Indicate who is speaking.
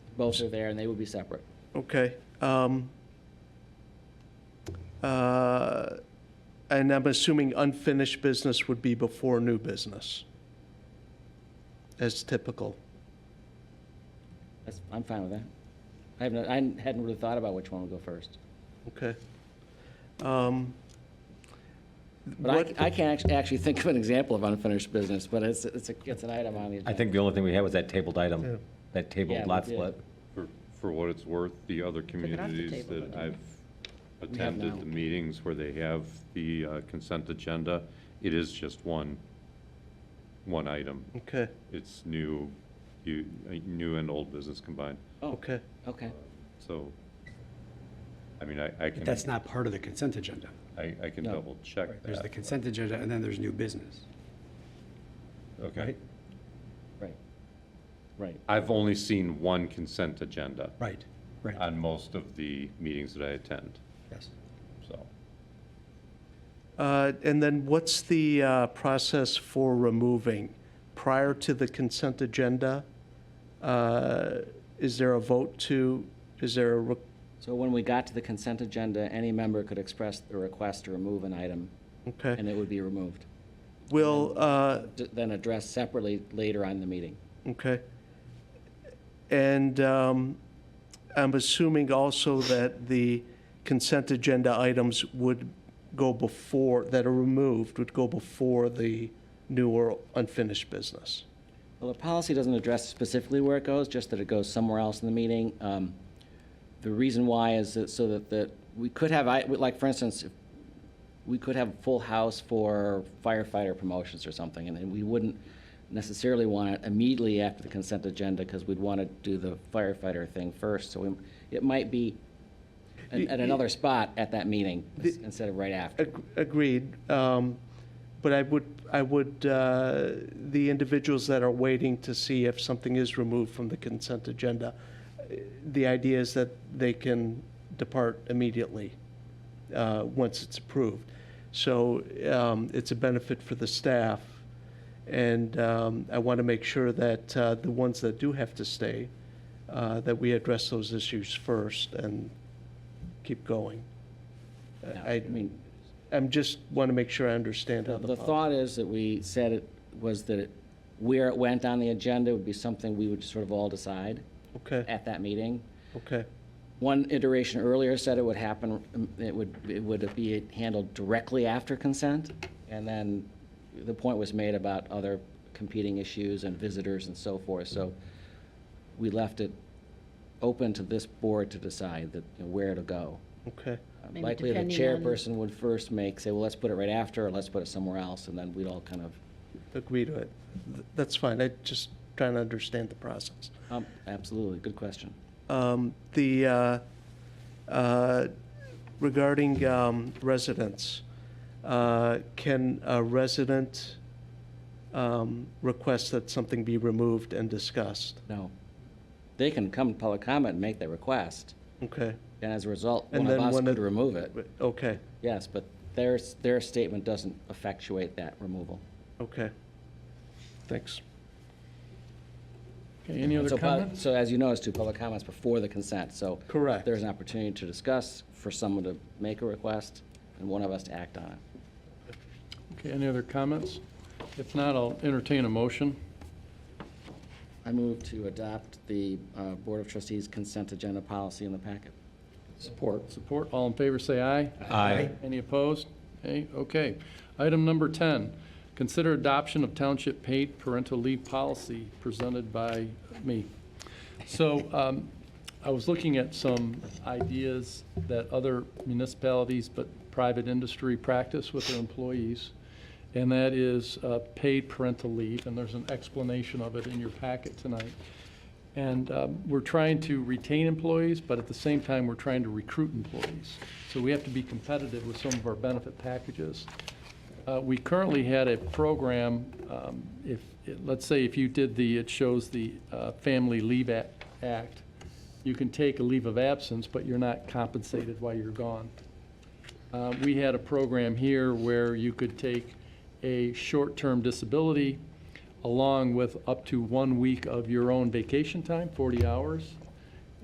Speaker 1: Both are there, and they would be separate.
Speaker 2: Okay. um, uh, And I'm assuming unfinished business would be before new business, as typical.
Speaker 1: That's, I'm fine with that. I haven't, I hadn't really thought about which one would go first.
Speaker 2: Okay. Um,
Speaker 1: But
Speaker 2: What-
Speaker 1: I, I can't act- actually think of an example of unfinished business, but it's, it's, a- it's an item on the agenda.
Speaker 3: I think the only thing we had was that tabled item, that
Speaker 1: Yeah,
Speaker 3: tabled
Speaker 1: we
Speaker 3: lot
Speaker 1: did.
Speaker 3: split.
Speaker 4: For, for what it's worth, the other
Speaker 5: it off the
Speaker 4: communities
Speaker 5: table,
Speaker 4: that I've
Speaker 1: now.
Speaker 4: attended the meetings where they have the uh, consent agenda, it is just one, one item.
Speaker 2: Okay,
Speaker 4: It's new, you, uh, new and old business combined.
Speaker 1: Oh,
Speaker 2: okay.
Speaker 1: okay.
Speaker 4: So, I mean, I, I
Speaker 6: But
Speaker 4: can,
Speaker 6: that's not part of the consent agenda.
Speaker 4: I, I can
Speaker 1: No.
Speaker 4: double check
Speaker 6: There's the
Speaker 4: that.
Speaker 6: consent agenda, and then there's new business.
Speaker 4: Okay.
Speaker 6: right?
Speaker 1: Right. Right.
Speaker 4: I've only seen one consent agenda
Speaker 6: Right, right,
Speaker 4: on most of the meetings that I attend,
Speaker 6: yes.
Speaker 4: so.
Speaker 2: Uh, And then what's the uh, process for removing? Prior to the consent agenda, uh, is there a vote to, is there a, re-
Speaker 1: So when we got to the consent agenda, any member could express a request to remove an item,
Speaker 2: okay.
Speaker 1: and it would be removed.
Speaker 2: Will, uh,
Speaker 1: D- Then addressed separately later on in the meeting.
Speaker 2: Okay. And um, I'm assuming also that the consent agenda items would go before, that are removed, would go before the new or unfinished business.
Speaker 1: Well, the policy doesn't address specifically where it goes, just that it goes somewhere else in the meeting. Um, The reason why is that, so that, that we could have, I, like, for instance, if we could have a full house for firefighter promotions or something, and then we wouldn't necessarily want it immediately after the consent agenda, because we'd want to do the firefighter thing first, so we- it might be at at another spot at that meeting, instead of right after.
Speaker 2: Ag- Agreed. um, But I would, I would, uh, the individuals that are waiting to see if something is removed from the consent agenda, eh, the idea is that they can depart immediately uh, once it's approved. So um, it's a benefit for the staff. And um, I want to make sure that uh, the ones that do have to stay, uh, that we address those issues first and keep going.
Speaker 1: No,
Speaker 2: I mean, I'm just want to make sure I understand how
Speaker 1: The-
Speaker 2: the.
Speaker 1: The
Speaker 2: pol-
Speaker 1: thought is that we said it, was that it- where it went on the agenda would be something we would sort of all decide
Speaker 2: Okay,
Speaker 1: at that meeting.
Speaker 2: okay,
Speaker 1: One iteration earlier said it would happen, um, it would, it would be handled directly after consent. And then the point was made about other competing issues and visitors and so forth. So we left it open to this board to decide that, you know, where it'll go. Uh,
Speaker 2: okay,
Speaker 5: Maybe
Speaker 1: Likely the
Speaker 5: depending on-
Speaker 1: chairperson would first make, say, well, let's put it right after, or let's put it somewhere else, and then we'd all kind of
Speaker 2: agree to it. Th- That's fine, I just trying to understand the process.
Speaker 1: Um, Absolutely, good question.
Speaker 2: Um, The, uh, uh, regarding um, residents, uh, can a resident um, request that something be removed and discussed?
Speaker 1: No. They can come to public comment and make their request,
Speaker 2: Okay,
Speaker 1: and as a result,
Speaker 2: And
Speaker 1: one of
Speaker 2: then
Speaker 1: us
Speaker 2: one of-
Speaker 1: could remove it.
Speaker 2: But- okay,
Speaker 1: Yes, but their, their statement doesn't effectuate that removal.
Speaker 2: okay. Thanks.
Speaker 7: Okay, any other
Speaker 1: So, pub-
Speaker 7: comments?
Speaker 1: So as you noticed, two public comments before the consent, so.
Speaker 2: Correct.
Speaker 1: There's an opportunity to discuss, for someone to make a request, and one of us to act on it.
Speaker 7: Okay, any other comments? If not, I'll entertain a motion.
Speaker 1: I move to adopt the uh, Board of Trustees consent agenda policy in the packet.
Speaker 7: Support. Support. All in favor, say aye.
Speaker 3: Aye.
Speaker 7: Any opposed? Okay, okay. Item number 10, consider adoption of township paid parental leave policy presented by me. So um, I was looking at some ideas that other municipalities, but private industry practice with their employees, and that is uh, paid parental leave, and there's an explanation of it in your packet tonight. And um, we're trying to retain employees, but at the same time, we're trying to recruit employees. So we have to be competitive with some of our benefit packages. Uh, We currently had a program, um, if, let's say if you did the, it shows the uh, Family Leave Ac- Act, you can take a leave of absence, but you're not compensated while you're gone. Uh, We had a program here where you could take a short-term disability along with up to one week of your own vacation time, 40 hours,